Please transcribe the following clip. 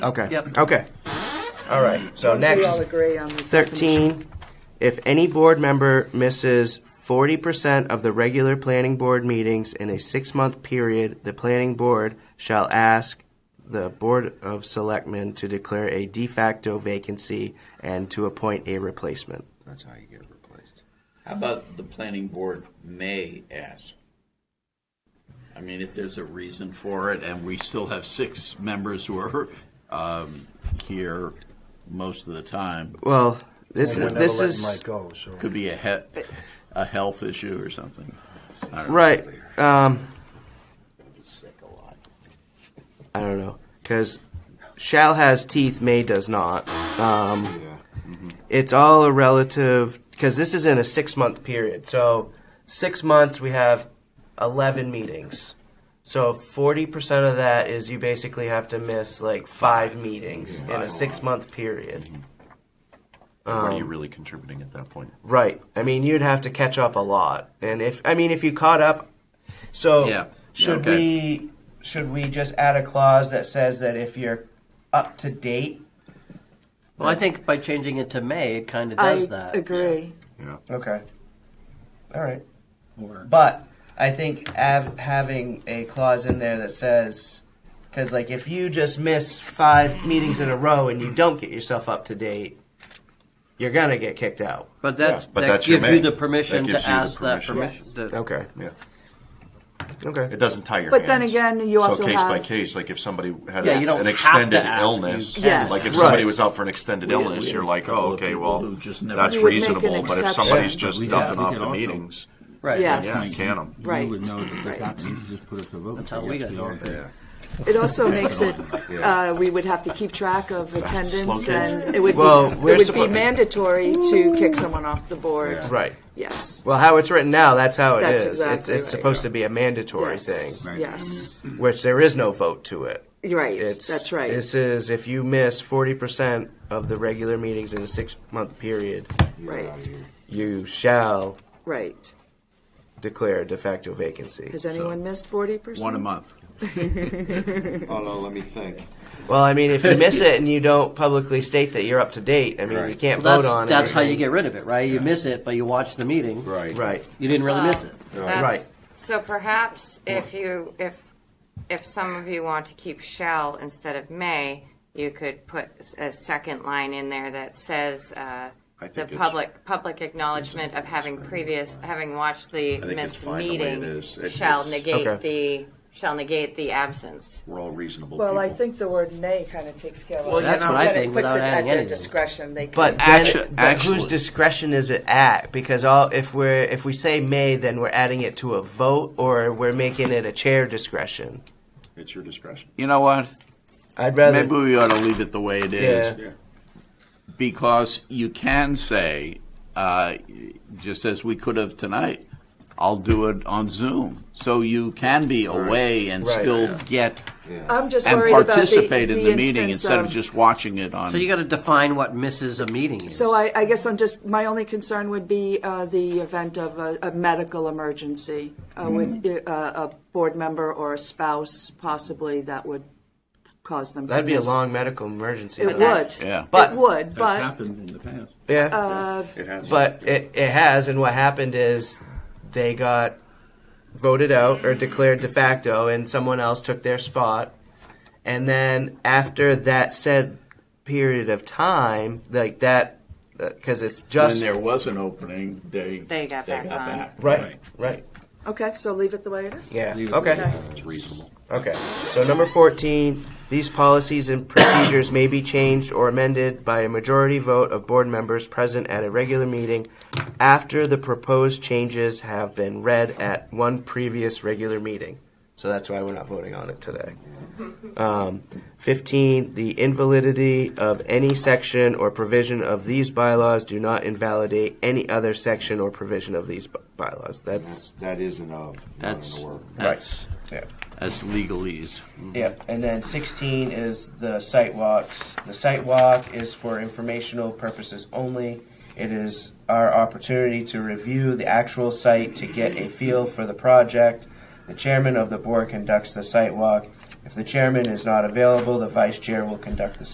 Okay. Yep. Okay. All right. So next. We all agree on the 13, if any board member misses 40% of the regular planning board meetings in a six-month period, the planning board shall ask the Board of Selectmen to declare a de facto vacancy and to appoint a replacement. That's how you get replaced. How about the planning board may ask? I mean, if there's a reason for it, and we still have six members who are um, here most of the time, Well, this, We're never this letting is. Mike go, so. could be a he- a health issue or something. I don't know. Right. Um, I don't know because shall has teeth, may does not. Um, mm-hmm. It's all a relative because this is in a six month period. So six months we have eleven meetings. So forty percent of that is you basically have to miss like five meetings in a six month period. what are you really contributing at that point? Right. I mean, you'd have to catch up a lot, and if I mean, if you caught up, so Yeah. should Okay. we should we just add a clause that says that if you're up to date? Well, I think by changing it to May, it kind of does I that. agree. Yeah. Okay. All right. Or- But I think av- having a clause in there that says, because like if you just miss five meetings in a row and you don't get yourself up to date, you're gonna get kicked out. But that, but that that's your gives you May. the permission That to gives you the ask that permission. permission. the- Okay. Yeah. Okay. It doesn't tie your But then hands. again, you also so case by have- case, like if somebody had Yeah, a- you don't an have extended to ask, you illness, can. Yes. like if Right. somebody was out for an extended We- illness, we- you're like, couple oh, of okay, people well, who just never- that's You would make an reasonable. But if exception. somebody's Yeah, just we- yeah, duffing we off could the also- meetings, Right. Yes. yeah, you can them. Right. You would know that there's not, you just put up the vote. That's how we got here. It also makes it, uh, we would have to keep track of attendance kids. and it would Well, be, we're it would be suppo- mandatory to kick someone off the board. Right. Yes. Well, how it's written now, that's how it is. That's it's exactly it's right. supposed to be a mandatory Yes. thing, Right. Yes. which there is no vote to it. Right. It's That's right. This is if you miss forty percent of the regular meetings in a six-month period, Right. you shall Right. declare a de facto vacancy. Has anyone missed forty percent? One a month. Oh, no, let me think. Well, I mean, if you miss it and you don't publicly state that you're up to date, I mean, you can't Well, vote on that's, it. that's how you get rid of it, right? You miss it, but you watch the meeting. Right. Right. You didn't really miss it. That's- Right. So perhaps if you, if, if some of you want to keep shall instead of may, you could put a second line in there that says, uh, I the think it's- public, public acknowledgement of having previous, having watched the think it's missed fine the way it meeting is. It- shall it's- negate Okay. the, shall negate the absence. We're all reasonable Well, I people. think the word may kind of takes care of it. Well, you That's know- what I Then it think puts without it adding At their anything. discretion, they can. But, Actu- then- but whose actually- discretion is it at? Because all if we're if we say may, then we're adding it to a vote, or we're making it a chair discretion. it's your discretion. You know what? I'd rather Maybe we ought to leave it the way it is. Yeah. Because you can say, uh, just as we could have tonight, I'll do it on Zoom. So you can be away and Right. still get I'm just and worried about the, participate in the the, meeting instance instead of, just watching it on. So you got to define what misses a meeting is. So I, I guess I'm just, my only concern would be uh, the event of a, a medical emergency uh, Mm-hmm. with uh, a board member or a spouse, possibly, that would cause them to that'd be a miss. long medical emergency. It would. Uh, Yeah. But- It would, That's but, happened in the past. Yeah. It has. But it, it has, and what happened is they got voted out or declared de facto, and someone else took their spot. And then after that said period of time, like that, because it's when just there was an opening, they They got back on. right, right, okay, so leave it the way it is? yeah, You- okay, It's reasonable. okay. So number fourteen, these policies and procedures may be changed or amended by a majority vote of board members present at a regular meeting after the proposed changes have been read at one previous regular meeting. So that's why we're not voting on it today. Um, 15, the invalidity of any section or provision of these bylaws do not invalidate any other section or provision of these b- bylaws. That's, That is an of, not That's an or. that's yeah. that's legalese. Yeah, and then 16 is the site walks. The site walk is for informational purposes only. It is our opportunity to review the actual site to get a feel for the project. The chairman of the board conducts the site walk If the chairman is not available, the vice chair will conduct the